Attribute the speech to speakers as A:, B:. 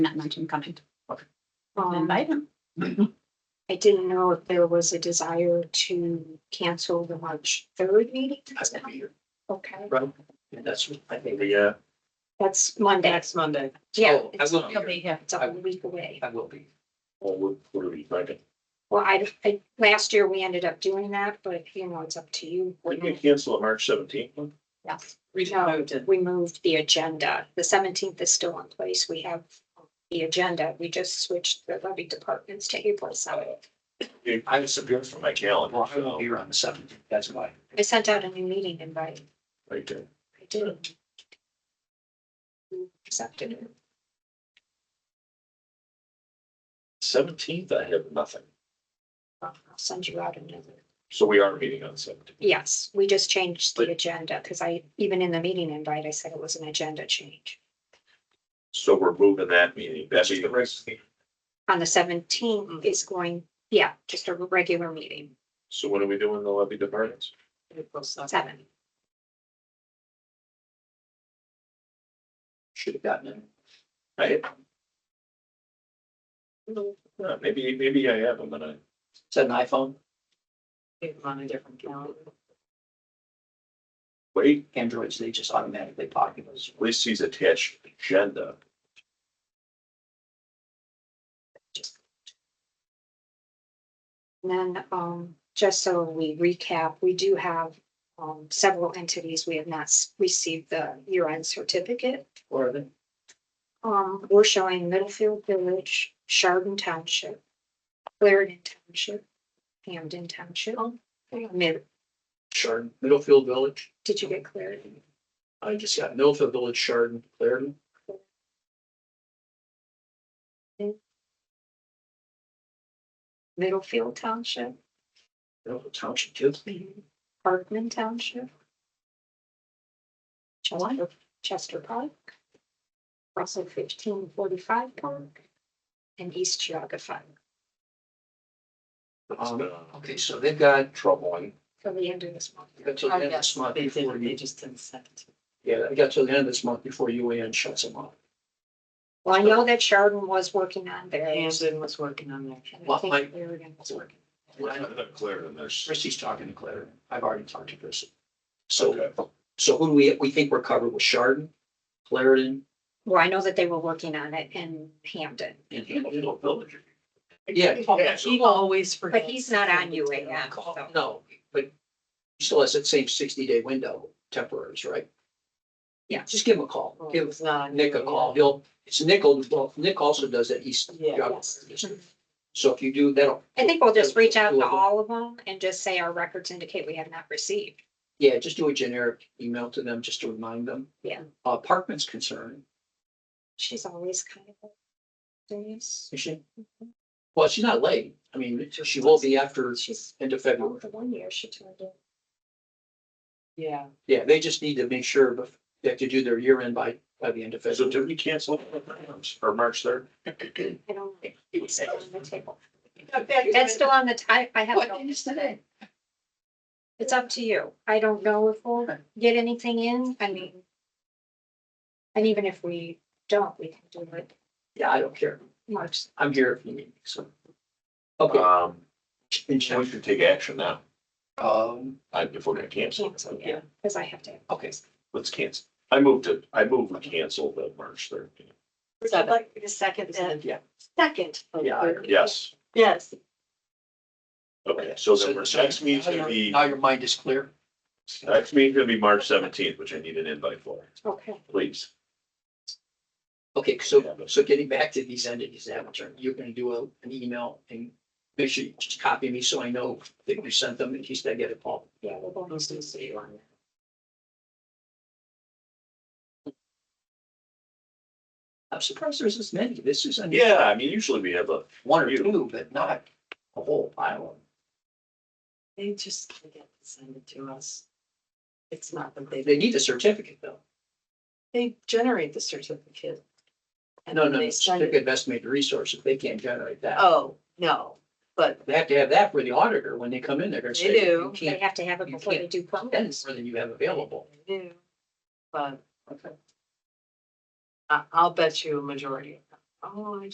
A: not mention coming.
B: Um,
A: Invite him.
B: I didn't know if there was a desire to cancel the March third meeting.
C: I will be here,
B: Okay,
C: right? And that's, I think, yeah.
B: that's Monday.
D: Next Monday.
B: Yeah,
C: Oh, I
B: it's
C: will be
A: He'll be
C: here.
A: here.
B: it's a whole week away.
C: I will be. Or we're, we're invited.
B: Well, I, I, last year we ended up doing that, but you know, it's up to you.
C: We can cancel on March seventeenth.
A: Yes.
D: We
B: No.
D: moved it.
B: We moved the agenda. The seventeenth is still in place. We have the agenda. We just switched the levy departments to April seventh.
C: I disappeared from my calendar,
E: Well, I won't
C: so,
E: be here on the seventeenth, that's why.
B: I sent out a new meeting invite.
C: right there.
B: I did. You Accepted it.
C: Seventeenth, I have nothing.
B: I'll send you out another.
C: So we are meeting on seventeenth.
B: Yes, we just changed
C: But-
B: the agenda because I, even in the meeting invite, I said it was an agenda change.
C: So we're moving that meeting. That's the rest.
B: On the
D: Mm.
B: seventeenth is going, yeah, just a regular meeting,
C: So what are we doing in the levy departments?
D: April 7th.
B: seven.
E: Should have gotten it.
C: I. No, uh, maybe, maybe I have them, but I,
E: Is that an iPhone?
D: It was on a different calendar.
C: wait,
E: Androids, they just automatically pocket those.
C: at least he's attached agenda.
B: And then, um, just so we recap, we do have, um, several entities. We have not s- received the year-end certificate.
E: Or are they?
B: Um, we're showing Middlefield Village, Chardon Township, Clarendon Township, Hamden Township.
D: Oh,
B: Mid-
E: Chardon, Middlefield Village.
B: Did you get Clarendon?
E: I just got Middlefield Village, Chardon, Clarendon.
B: Middlefield Township?
E: Middlefield Township too.
D: Mm-hmm.
B: Parkman Township. Chester, Chester Park. Russell fifteen forty-five Park. And East Geoga Fund
C: That's
E: Um,
C: the
E: Okay, so they've got,
C: Troubling.
B: for the end of this month.
E: they've got till the end of this month
D: Oh, They
E: before
D: did, they
E: you,
D: just didn't send it.
E: yeah, they got till the end of this month before UAN shuts them off.
B: Well, I know that Sheridan was working on theirs.
D: Andrew was working on that.
B: and I
E: Well,
B: think
E: my-
B: Clarendon was working.
E: Well, I don't-
C: Clarendon, there's.
E: Christie's talking to Clarendon. I've already talked to Christie. So,
C: Okay.
E: so who do we, we think we're covered with Chardon, Clarendon,
B: Well, I know that they were working on it in Hamden,
E: and Hamden.
C: Middlefield Village.
E: Yeah.
C: Yeah, so-
D: He always forgets.
B: but he's not on UAM.
E: Call-
B: so-
E: No, but he still has that same sixty day window, temporaries, right?
B: Yeah.
E: Just give him a call.
D: Oh,
E: Give
D: It's not. on
E: Nick a
D: UAM.
E: call. He'll, it's Nickel, well, Nick also does that East.
D: Yeah.
E: geography.
B: Mhm.
E: So if you do, that'll,
B: I think we'll just reach out
E: Two
B: to
E: of them.
B: all of them and just say our records indicate we have not received.
E: yeah, just do a generic email to them, just to remind them.
B: Yeah.
E: Uh, Parkman's concerned,
B: She's always kind of. serious.
E: is she?
B: Mm-hmm.
E: Well, she's not late. I mean, she will be after
B: She's,
E: end of
B: oh,
E: February.
B: the one year she turned in.
D: Yeah.
E: Yeah, they just need to make sure bef- they have to do their year end by, by the end of
C: So
E: February.
C: did we cancel for March third?
B: I don't. know. It's still on the table. That's
E: That's
B: still on the, ti- I, I have, it
E: What
B: all.
E: day is today?
B: it's up to you. I don't know if we'll get anything in, I mean. And even if we don't, we can do it
E: Yeah, I don't care.
B: March.
E: I'm here if you need me, so. Okay.
C: Um,
E: and
C: we
E: check.
C: should take action now,
E: Um,
C: I, if we're gonna cancel.
B: Cancel, yeah, because I have to.
E: okay,
C: Let's cancel. I moved it, I moved to cancel the March third.
F: Would you
D: Seven.
F: like me to second that?
E: yeah,
F: Second.
E: yeah. I-
C: Yes,
F: Yes,
C: okay, so then we're, next meeting's
E: Now
C: gonna
E: your-
C: be,
E: Now your mind is clear.
C: next meeting's gonna be March seventeenth, which I need an invite for,
B: Okay.
C: please.
E: Okay, so, so getting back to these entities that I'm turning, you're gonna do a, an email and make sure you just copy me so I know that you sent them in case I get a call.
B: Yeah, we're going to see you on that.
E: I'm surprised there's this many. This is unusual.
C: Yeah, I mean, usually we have a,
E: one or two, but not a whole pile of them.
D: They just forget to send it to us. It's not that they,
E: They need a certificate though.
D: they generate the certificate. and
E: No,
D: then
E: no,
D: they send it.
E: certificate of estimated resources, they can't generate that.
D: Oh, no, but
E: They have to have that for the auditor when they come in, they're gonna
D: They
E: say.
D: do.
E: "You
B: They
E: can't
B: have to have it
E: you
B: before they
E: can't
B: do
E: spend
B: permits.
E: more than you have available.
D: new. But
E: Okay.
D: I, I'll bet you a majority. of them Oh, I